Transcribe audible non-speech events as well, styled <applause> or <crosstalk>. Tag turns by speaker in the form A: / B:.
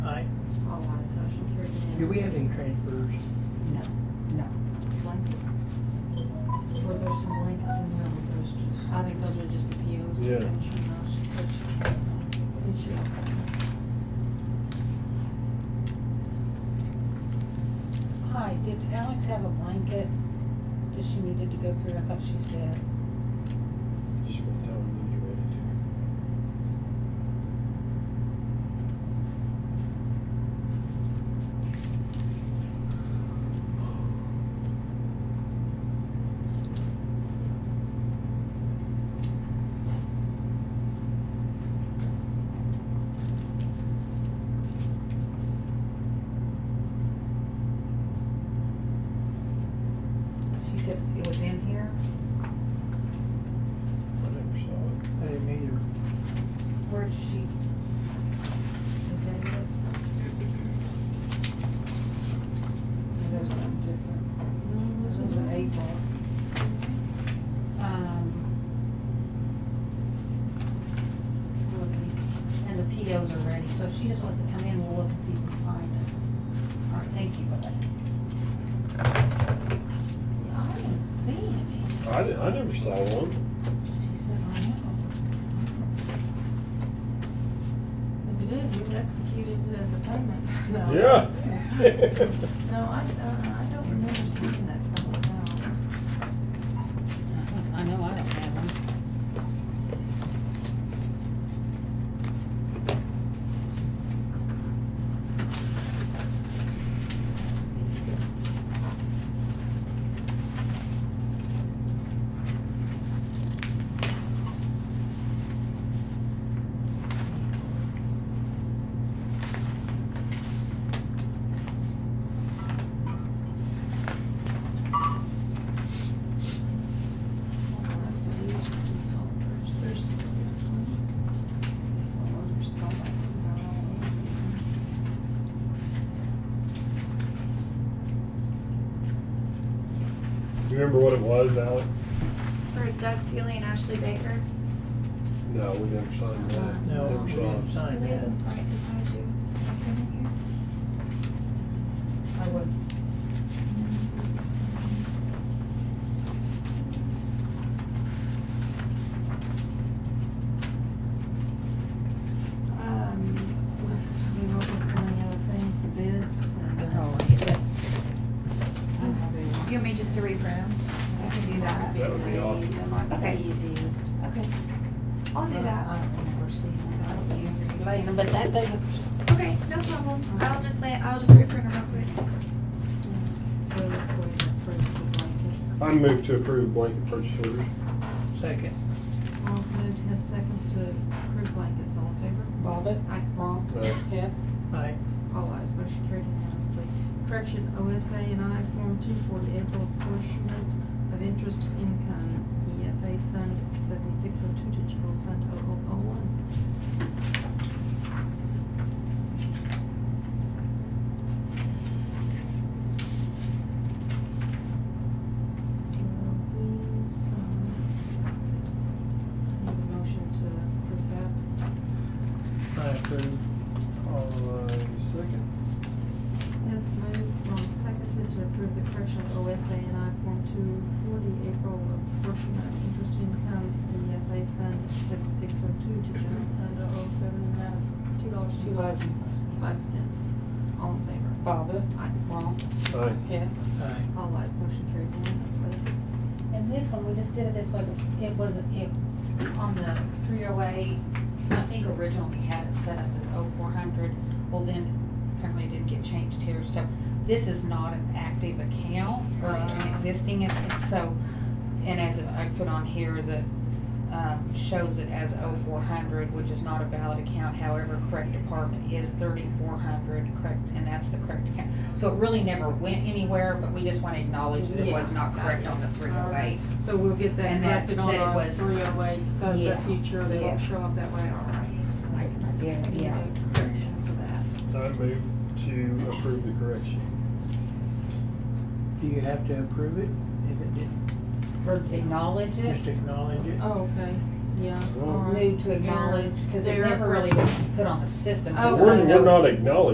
A: Do we have any transfers?
B: No, no.
C: Blankets? Were there some blankets in there, or those just, I think those were just the POs,
D: Yeah.
C: didn't she know, she said she, did she?
E: Hi, did Alex have a blanket that she needed to go through? I thought she said.
D: Just went down and get ready to.
C: She said it was in here?
D: I never saw it.
A: I didn't either.
C: Where'd she? Is that it?
E: And There's some different. Those are eight ball. Um,
C: Looking. And the POs are ready, so if she just wants to come in, we'll look and see if we can find them. All right, thank you, bye.
E: I didn't see any.
D: I, di- I never saw one.
E: She said, I know.
C: If it is, you've executed it as a payment. <laughs> No.
D: Yeah. <laughs>
C: No, I, uh, I don't remember seeing that from now.
E: I know I don't have them.
C: Well, the rest of these are developers, there's some of these ones. Well, those are small ones, and they're all amazing.
D: Do you remember what it was, Alex?
F: For Doug Seeley and Ashley Baker.
D: No, we never signed that.
A: No,
D: Never
A: we
D: saw
A: didn't
D: it.
A: sign
F: Right
A: that.
F: beside you. Up in here.
C: I would. Um, we look at so many other things, the bids and.
B: Oh,
C: I don't know, they-
F: You want me just to read them? I can do that.
D: That would be awesome.
C: That might be
F: Okay.
C: the easiest.
F: Okay. I'll do
C: I
F: that.
C: don't remember seeing that. I don't remember
E: Like,
C: seeing
E: But that doesn't,
F: Okay, no problem. I'll just lay, I'll just reprint them real quick.
C: that. Well, it's way for the blankets.
D: I moved to approve blanket purchase order.
A: Second.
C: Ronk moved, Hess seconds to approve blankets, all in favor?
E: Bobbit,
C: Aye.
E: wrong,
D: Aye.
E: yes.
A: Aye.
C: All ayes, motion carried unanimously. Correction, OSA and I Form Two for the April apportionment of interest income, EFA Fund seventy-six oh two to General Fund 0001. So these, um, need a motion to approve that.
A: I approve.
D: All right, second.
C: Hess moved, Ronk seconded um, to approve the correction of OSA and I Form two for the April apportionment of interest income in the FA Fund seventy-six oh two to general fund oh seven in the amount of two dollars,
E: Two lives.
C: five cents. All in favor?
E: Bobbit,
C: Aye.
E: wrong,
D: Aye.
E: yes.
A: Aye.
C: All ayes, motion carried unanimously.
B: And this one, we just did it this way, but it was, it,
C: On the three oh eight, I think originally we had it set up as oh four hundred, well then apparently it didn't get changed here, so this is not an active account or an existing, account. so, and as I put on here, that, um, shows it as oh four hundred, which is not a valid account, however, correct department is thirty-four hundred, correct, and that's the correct account. So it really never went anywhere, but we just wanna acknowledge that it was not correct on the three oh eight.
G: So we'll get that
C: And that-
G: corrected on
C: that it
G: our
C: was-
G: three oh eight, so
C: Yeah.
G: the future, they
C: Yeah.
G: won't show up that way, all right.
C: Yeah, yeah.
G: Correction for that.
D: I moved to approve the correction.
A: Do you have to approve it? If it didn't,
C: Or acknowledge it.
A: just acknowledge it?
G: Oh, okay, yeah. all right.
C: move to acknowledge, because it
G: They're-
C: never really was put on the system.
G: Oh,
C: There was
D: We're,
G: right.
C: no-
D: we're not acknowledged.